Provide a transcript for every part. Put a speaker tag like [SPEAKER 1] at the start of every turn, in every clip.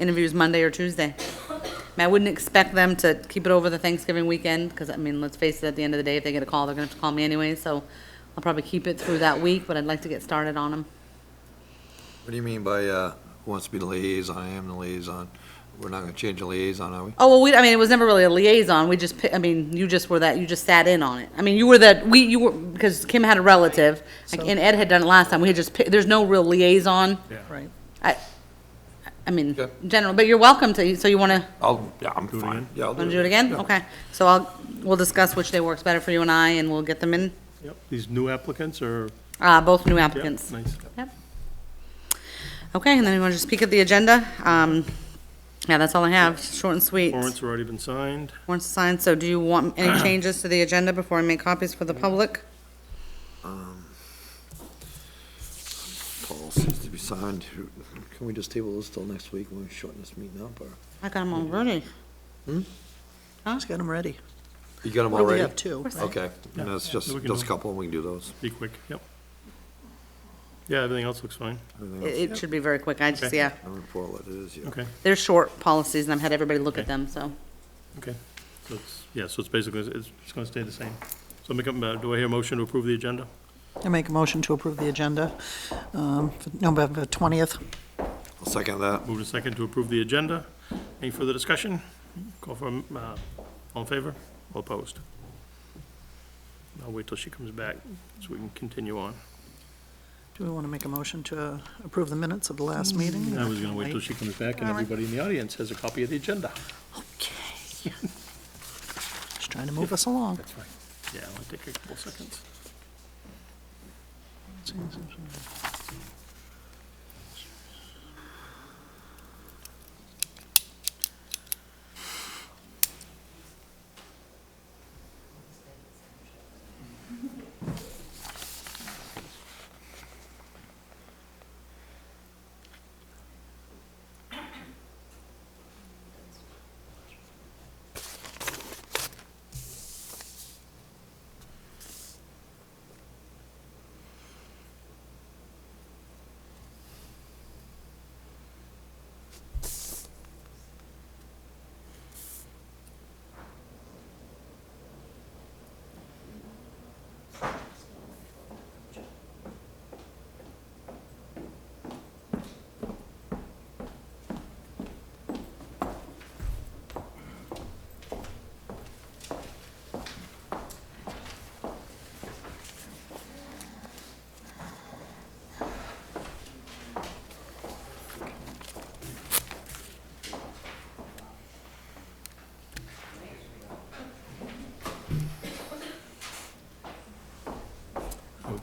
[SPEAKER 1] interviews Monday or Tuesday. I mean, I wouldn't expect them to keep it over the Thanksgiving weekend, because, I mean, let's face it, at the end of the day, if they get a call, they're gonna have to call me anyway, so I'll probably keep it through that week, but I'd like to get started on them.
[SPEAKER 2] What do you mean by, uh, who wants to be the liaison? I am the liaison. We're not gonna change the liaison, are we?
[SPEAKER 1] Oh, well, we, I mean, it was never really a liaison, we just, pi- I mean, you just were that, you just sat in on it. I mean, you were that, we, you were, because Kim had a relative, like, and Ed had done it last time, we had just, pi- there's no real liaison.
[SPEAKER 3] Right.
[SPEAKER 1] I, I mean,
[SPEAKER 2] Okay.
[SPEAKER 1] general, but you're welcome to, so you wanna,
[SPEAKER 2] I'll, yeah, I'm
[SPEAKER 3] it
[SPEAKER 2] fine.
[SPEAKER 3] again?
[SPEAKER 2] Yeah, I'll
[SPEAKER 1] wanna do it again?
[SPEAKER 2] Yeah.
[SPEAKER 1] Okay, so I'll, we'll discuss which day works better for you and I, and we'll get them in,
[SPEAKER 3] Yep, these new applicants are,
[SPEAKER 1] uh, both new
[SPEAKER 3] yep,
[SPEAKER 1] applicants.
[SPEAKER 3] nice.
[SPEAKER 1] Yep. Okay, and then you wanna just peek at the agenda? Um, yeah, that's all I have, short and sweet.
[SPEAKER 3] Warrants have already been signed.
[SPEAKER 1] Warrants signed, so do you want any changes to the agenda before I make copies for the public?
[SPEAKER 2] Policies to be signed. Can we just table this till next week when we shorten this meeting up, or?
[SPEAKER 1] I got them all ready.
[SPEAKER 4] Just got them ready.
[SPEAKER 2] You got them
[SPEAKER 4] What do we
[SPEAKER 2] already?
[SPEAKER 4] have, two?
[SPEAKER 2] Okay, and that's just,
[SPEAKER 3] we can
[SPEAKER 2] just a
[SPEAKER 3] do-
[SPEAKER 2] couple, and we can do those.
[SPEAKER 3] Be quick, yep. Yeah, everything else looks fine.
[SPEAKER 2] Everything else,
[SPEAKER 1] It, it should be very quick, I just,
[SPEAKER 3] Okay.
[SPEAKER 1] yeah,
[SPEAKER 2] I don't recall what it is, yeah.
[SPEAKER 3] Okay,
[SPEAKER 1] they're short policies, and I've had everybody look at
[SPEAKER 3] Okay.
[SPEAKER 1] them, so.
[SPEAKER 3] okay. So it's, yeah, so it's basically, it's, it's gonna stay the same. So make up, uh, do I hear a motion to approve the agenda?
[SPEAKER 4] I make a motion to approve the agenda um, for November 20th.
[SPEAKER 2] I'll second that.
[SPEAKER 3] Move to second to approve the agenda. Any further discussion? Call for, um, uh, all in favor, all opposed? I'll wait till she comes back, so we can continue on.
[SPEAKER 4] Do we want to make a motion to approve the minutes of the last meeting?
[SPEAKER 3] I was gonna wait till she comes back, and everybody in the audience has a copy of the agenda.
[SPEAKER 4] Okay. Just trying to move us along.
[SPEAKER 3] That's fine. Yeah, it'll take a couple seconds.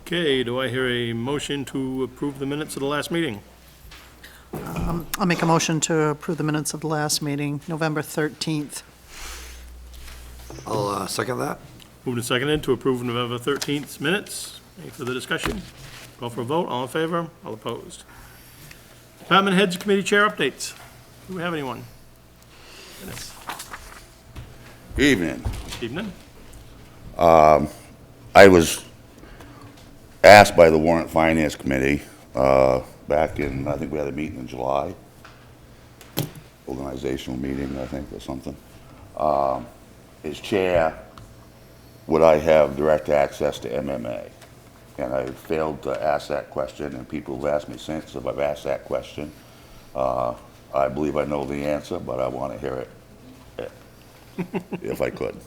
[SPEAKER 3] Okay, do I hear a motion to approve the minutes of the last meeting?
[SPEAKER 4] I'll make a motion to approve the minutes of the last meeting, November 13th.
[SPEAKER 2] I'll, uh, second that.
[SPEAKER 3] Moved and seconded to approve November 13th minutes. Any further discussion? Call for a vote, all in favor, all opposed. Department heads, committee chair updates. Do we have anyone? Dennis,
[SPEAKER 5] Evening.
[SPEAKER 3] Evening?
[SPEAKER 5] I was asked by the warrant finance committee, uh, back in, I think we had a meeting in July, organizational meeting, I think, or something, um, as chair, would I have direct access to MMA? And I failed to ask that question, and people have asked me since if I've asked that question. Uh, I believe I know the answer, but I want to hear it, eh, if I could.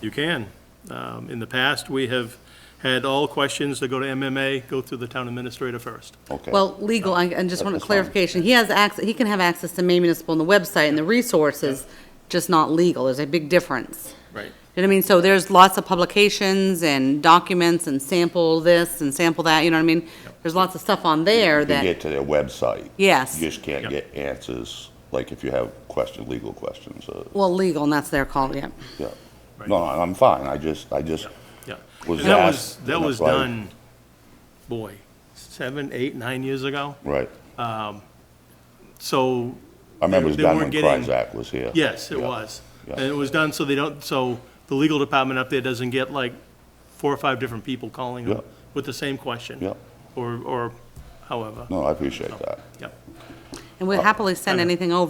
[SPEAKER 3] You can. Um, In the past, we have had all questions that go to MMA go through the town administrator first.
[SPEAKER 5] Okay.
[SPEAKER 1] Well, legal, I, I just want a
[SPEAKER 5] That's fine.
[SPEAKER 1] clarification, he has access, he can have access to May Municipal and the website and the resources, just not legal, there's a big difference.
[SPEAKER 3] Right.
[SPEAKER 1] You know what I mean? So there's lots of publications and documents and sample this and sample that, you know what I mean? There's lots of stuff on there
[SPEAKER 5] You
[SPEAKER 1] that,
[SPEAKER 5] get to their website.
[SPEAKER 1] Yes.
[SPEAKER 5] You just can't
[SPEAKER 3] Yep.
[SPEAKER 5] get answers, like if you have question, legal questions, uh,
[SPEAKER 1] well, legal, and that's their call, yeah.
[SPEAKER 5] yeah.
[SPEAKER 3] Right.
[SPEAKER 5] No, I'm fine, I just, I just,
[SPEAKER 3] Yeah.
[SPEAKER 5] Was
[SPEAKER 3] And that was,
[SPEAKER 5] asked,
[SPEAKER 3] that was
[SPEAKER 5] like-
[SPEAKER 3] done, boy, seven, eight, nine years ago.
[SPEAKER 5] right.
[SPEAKER 3] So
[SPEAKER 5] I remember it was
[SPEAKER 3] They- they
[SPEAKER 5] done when
[SPEAKER 3] weren't getting-
[SPEAKER 5] Kryzak was here.
[SPEAKER 3] Yes, it
[SPEAKER 5] Yeah.
[SPEAKER 3] was.
[SPEAKER 5] Yeah.
[SPEAKER 3] And it was done so they don't, so the legal department up there doesn't get like four or five different people calling
[SPEAKER 5] Yeah.
[SPEAKER 3] them with the same question.
[SPEAKER 5] Yeah.
[SPEAKER 3] Or, or however.
[SPEAKER 5] No, I appreciate that.
[SPEAKER 3] Yep.
[SPEAKER 5] Oh,
[SPEAKER 1] And we'd happily send anything over.